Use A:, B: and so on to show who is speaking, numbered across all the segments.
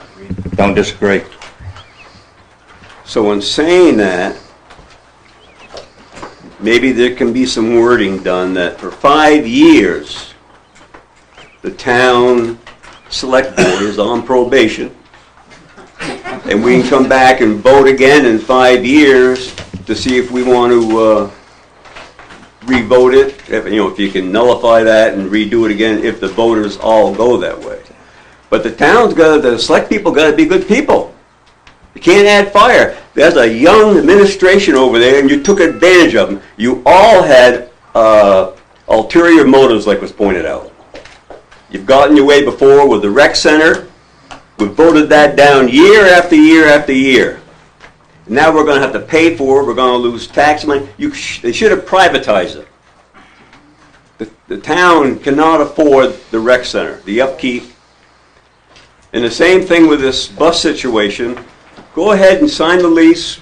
A: disagree.
B: Don't disagree.
C: So in saying that, maybe there can be some wording done that for five years, the town select board is on probation. And we can come back and vote again in five years to see if we want to, uh, re-vote it, if, you know, if you can nullify that and redo it again, if the voters all go that way. But the town's gotta, the select people gotta be good people. You can't add fire. There's a young administration over there, and you took advantage of them. You all had uh, ulterior motives, like was pointed out. You've gotten your way before with the rec center. We voted that down year after year after year. Now we're going to have to pay for it. We're going to lose tax money. You sh- they should have privatized it. The, the town cannot afford the rec center, the upkeep. And the same thing with this bus situation go ahead and sign the lease,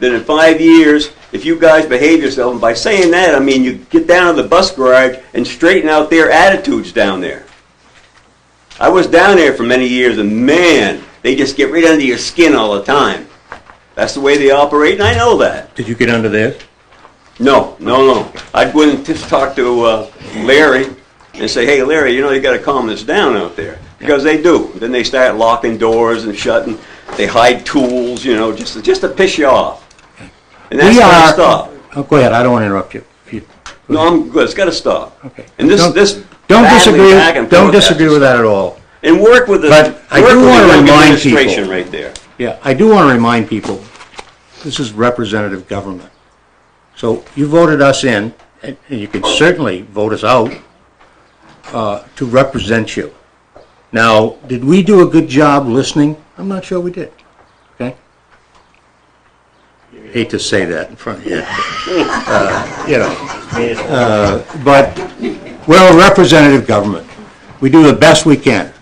C: then in five years, if you guys behave yourself, and by saying that, I mean you get down to the bus garage and straighten out their attitudes down there. I was down there for many years, and man, they just get right under your skin all the time. That's the way they operate, and I know that.
B: Did you get under there?
C: No, no, no. I'd go in and just talk to uh, Larry and say, hey, Larry, you know, you gotta calm this down out there. Because they do. Then they start locking doors and shutting, they hide tools, you know, just, to- just to piss you off. And that's
B: We
C: gotta
B: are-
C: stop.
B: Oh, go ahead, I don't want to interrupt you. If you-
C: No, I'm good, it's gotta stop.
B: Okay.
C: And this,
B: Don't-
C: this.
B: Don't
C: battling
B: disagree,
C: back and
B: don't
C: forth
B: disagree
C: has
B: with
C: to
B: that at all.
C: stop. And work with the, work
B: But I
C: with
B: do
C: the
B: wanna
C: young
B: remind
C: administration
B: people-
C: right there.
B: Yeah, I do want to remind people, this is representative government. So you voted us in, and and you can certainly vote us out, uh, to represent you. Now, did we do a good job listening? I'm not sure we did, okay? Hate to say that in front of you. Uh, You know, uh, but we're a representative government. We do the best we can.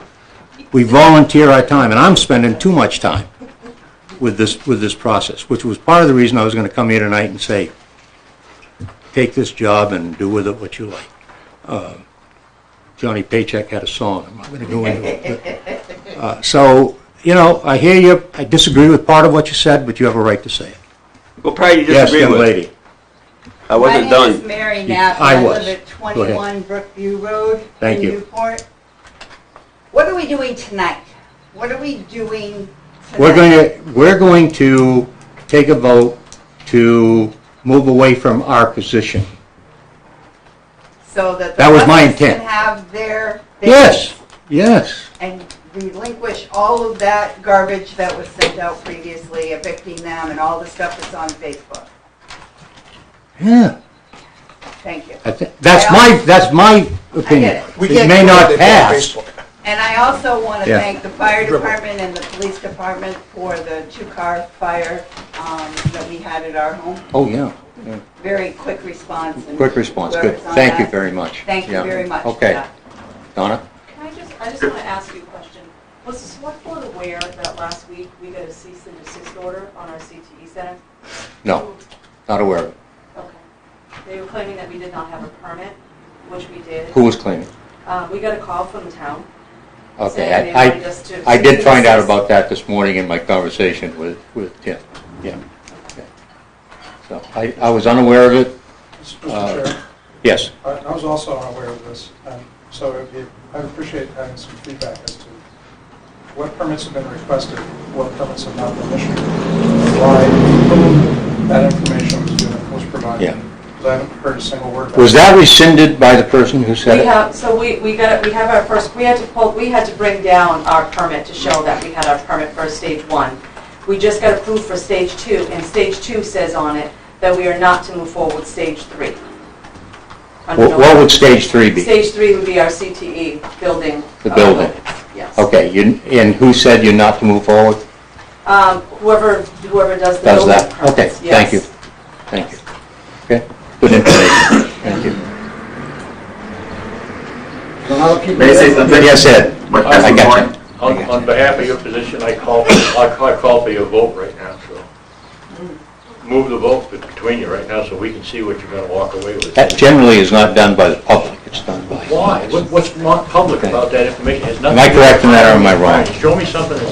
B: We volunteer our time, and I'm spending too much time with this, with this process, which was part of the reason I was gonna come here tonight and say, take this job and do with it what you like. Uh, Johnny Paycheck had a song, I'm not gonna go into it. but, uh, So, you know, I hear you, I disagree with part of what you said, but you have a right to say it.
C: Well, probably you
B: Yes,
C: disagree
B: young
C: with.
B: lady.
C: I wasn't
D: My name is
C: done.
D: Mary Knapp,
B: I
D: and I
B: was.
D: live at
B: Go ahead.
D: 21 Brookview Road
B: Thank
D: in
B: you.
D: Newport. What are we doing tonight? What are we doing tonight?
B: We're going to, we're going to take a vote to move away from our position.
D: So that the
B: That was my
D: others
B: intent.
D: can have their... things
B: Yes, yes.
D: And relinquish all of that garbage that was sent out previously, evicting them and all the stuff that's on Facebook.
B: Yeah,
D: Thank you.
B: I thi- that's my, that's my opinion. It may not pass.
D: And I also want to
B: Yeah.
D: thank the fire department and the police department for the two-car fire um, that we had at our home.
B: Oh, yeah.
D: very quick response. and
B: Quick response, good.
D: whoever's on
B: Thank you
D: that,
B: very much.
D: Thank you
B: Yeah.
D: very much. for
B: Okay,
D: that.
B: Donna?
E: Can I just, I just want to ask you a question. Was the select board aware that last week we got a cease and desist order on our CTE center?
B: No, not aware of it.
E: Okay. They were claiming that we did not have a permit, which we did.
B: Who was claiming?
E: Uh, We got a call from the town.
B: Okay,
E: saying they
B: I-
E: wanted
B: I,
E: us to-
B: I did find out about that this morning in my conversation with, with Tim. Yeah. okay. So I, I was unaware of it. Uh,
F: Mr. Chair,
B: Yes.
F: I I was also unaware of this, um, so it would be- I'd appreciate having some feedback as to what permits have been requested, what permits have not been issued, why that information was given, was provided.
B: Yeah.
F: 'Cause I haven't heard a single word. about
B: Was
F: it.
B: that rescinded by the person who said
E: We
B: it?
E: have, so we, we got, we have our first, we had to pull, we had to bring down our permit to show that we had our permit for stage one. We just got approved for stage two, and stage two says on it that we are not to move forward with stage three. Under
B: Wh- What
E: no-
B: would stage three be?
E: Stage three would be our CTE building.
B: The
E: uh,
B: building.
E: Yes.
B: Okay, you- and who said you're not to move forward?
E: Um, Whoever, whoever does the
B: Does
E: building
B: that? Okay,
E: permits,
B: thank you.
E: yes.
B: Thank you. Okay, good information. Thank you.
G: May I say something?
B: Yes, Ed. I got you.
G: On, on behalf of your position, I call, I call- I call for your vote right now, so. Move the vote between you right now, so we can see what you're gonna walk away with.
B: That generally is not done by the public, it's done by...
G: Why? What- What's not public about that information? It has
B: Am I
G: nothing to do
B: correct in that or am I
G: with-
B: wrong?
G: Show me something that's